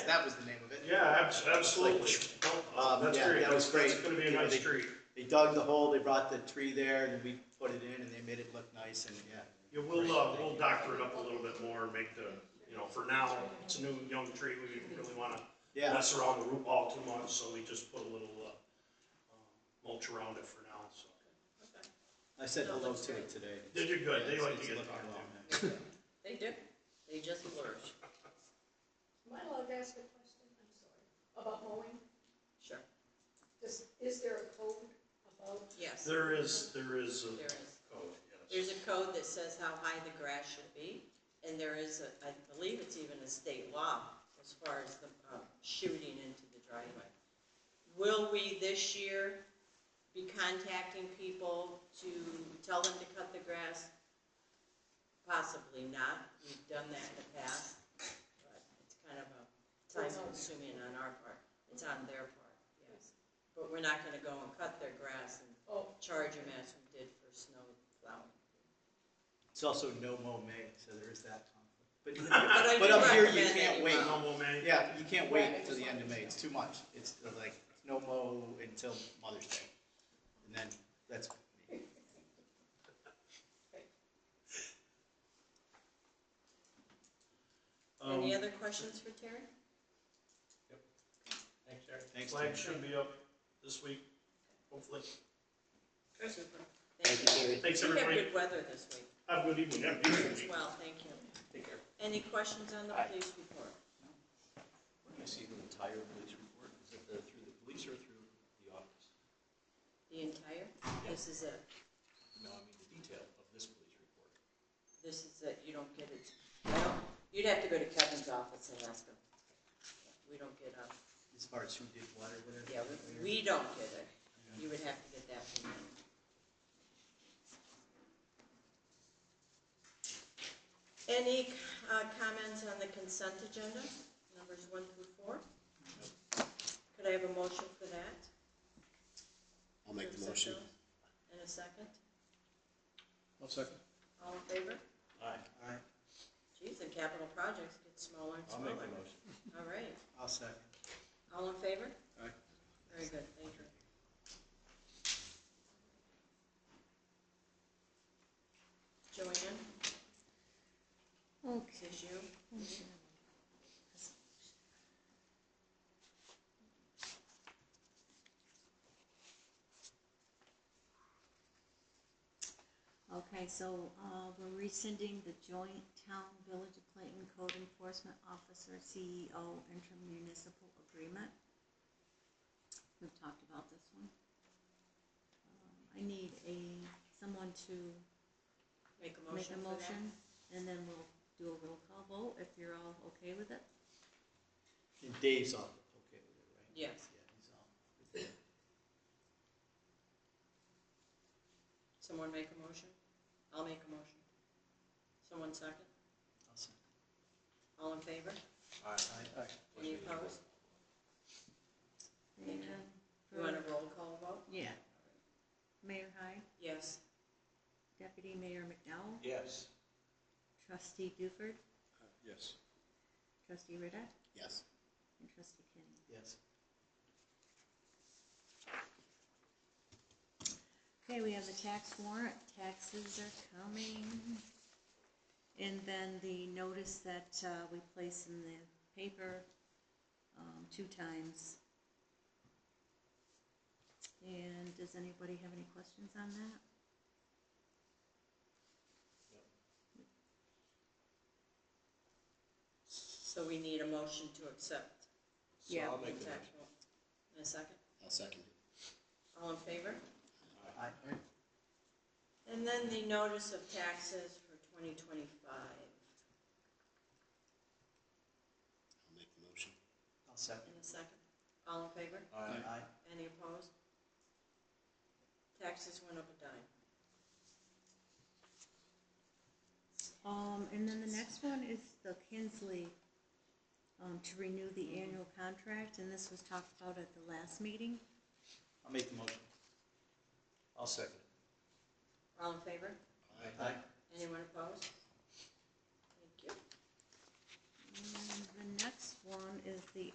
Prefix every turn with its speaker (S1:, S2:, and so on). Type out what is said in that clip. S1: That was the name of it.
S2: Yeah, abs- absolutely. No,
S1: Um,
S2: That's
S1: yeah,
S2: great.
S1: that was
S2: That's, that's
S1: great.
S2: gonna be a
S1: You know,
S2: nice
S1: they-
S2: street.
S1: They dug the hole, they brought the tree there, and we put it in, and they made it look nice, and yeah.
S2: Yeah, we'll, uh, we'll doctor it up a little bit more and make the, you know, for now, it's a new, young tree. We didn't really wanna
S1: Yeah.
S2: mess around the root ball too much, so we just put a little, uh, um, mulch around it for now, so.
S1: I said hello to it today.
S2: They did good. They
S1: It's-
S2: like to
S1: it's
S2: get
S1: looking
S2: talked
S1: well.
S2: to.
S3: They do. They just flourish.
S4: Am I allowed to ask a question? I'm sorry. About mowing?
S3: Sure.
S4: Does, is there a code about?
S3: Yes, there
S2: There is, there is a
S3: is.
S2: code, yes.
S3: There's a code that says how high the grass should be, and there is, a- I believe it's even a state law as far as the um, shooting into the driveway. Will we this year be contacting people to tell them to cut the grass? Possibly not. We've done that in the past, but it's kind of a time-consuming on our part. It's on their part, yes. But we're not gonna go and cut their grass and
S4: Oh,
S3: charge them as we did for snow plowing.
S1: It's also no mow May, so there is that conflict.
S3: But I
S1: But,
S3: do
S1: but up here, you
S3: recommend that
S1: can't
S3: you
S1: wait.
S3: mow.
S2: Normal man.
S1: Yeah, you can't
S4: Right, I
S1: wait till
S4: just
S1: the end
S4: wanted
S1: of
S4: to
S1: May,
S4: know.
S1: it's too much. It's like, no mow until Mother's Day. And then, that's me.
S2: Um,
S3: Any other questions for Terry?
S1: Thanks, Terry. Thanks,
S2: Flag
S1: Terry.
S2: should be up this week, hopefully.
S3: Super. Thank you.
S2: Thanks,
S3: We have
S2: everybody.
S3: good weather this week
S2: Have a good evening. Have a beautiful
S3: as
S2: week.
S3: well, thank you.
S1: Take care.
S3: Any questions on the
S5: Aye.
S3: police report?
S5: We're gonna see the entire police report, is it the- through the police or through the office?
S3: The entire, this is a,
S5: No, I mean the detail of this police report.
S3: this is a, you don't get it, well, you'd have to go to Kevin's office and ask him. We don't get, um,
S1: As far as who did what or whatever.
S3: yeah, we, we don't get it. You would have to get that from him. Any, uh, comments on the consent agenda, numbers one through four? Could I have a motion for that?
S6: I'll make the motion.
S3: In a second? I'll second. All in favor?
S5: Aye.
S1: Aye,
S3: Geez, the capital projects get smaller and
S5: I'll
S3: smaller.
S5: make the motion.
S3: All right,
S1: I'll second.
S3: all in favor?
S1: Aye.
S3: Very good, thank you. Joanne? Okay. This is you?
S7: Okay, so, uh, we're rescinding the joint town village of Clayton code enforcement officer E CEO intermunicipal agreement. We've talked about this one. Um, I need a, someone to
S3: Make a
S7: make
S3: motion
S7: a
S3: for that?
S7: motion, and then we'll do a roll call vote if you're all okay with it.
S1: And Dave's all okay with it, right?
S3: Yes.
S1: Yeah, he's all.
S3: Someone make a motion? I'll make a motion. Someone second?
S1: I'll second.
S3: All in favor?
S1: Aye.
S3: Any opposed? Thank you.
S7: And
S3: You want
S7: for-
S3: a roll call vote?
S7: Yeah. Mayor High,
S3: Yes.
S7: Deputy Mayor McDowell,
S5: Yes.
S7: Trustee Duford,
S5: Yes.
S7: Trustee Ritter,
S6: Yes.
S7: and Trustee Kenny.
S1: Yes.
S7: Okay, we have the tax warrant, taxes are coming. And then the notice that uh, we place in the paper um, two times. And does anybody have any questions on that?
S3: So we need a motion to accept.
S5: So
S7: Yeah.
S5: I'll make
S3: the
S5: the
S3: tax
S5: motion.
S3: roll. In a second?
S6: I'll second it.
S3: All in favor?
S1: Aye.
S3: And then the notice of taxes for twenty twenty-five.
S6: I'll make the motion.
S1: I'll second.
S3: In a second? All in favor?
S5: Aye.
S1: Aye.
S3: Any opposed? Taxes went up a dime.
S7: Um, and then the next one is the Kinsley, um, to renew the annual contract, and this was talked about at the last meeting.
S1: I'll make the motion.
S5: I'll second it.
S3: All in favor?
S1: Aye.
S3: Anyone opposed? Thank you.
S7: And the next one is the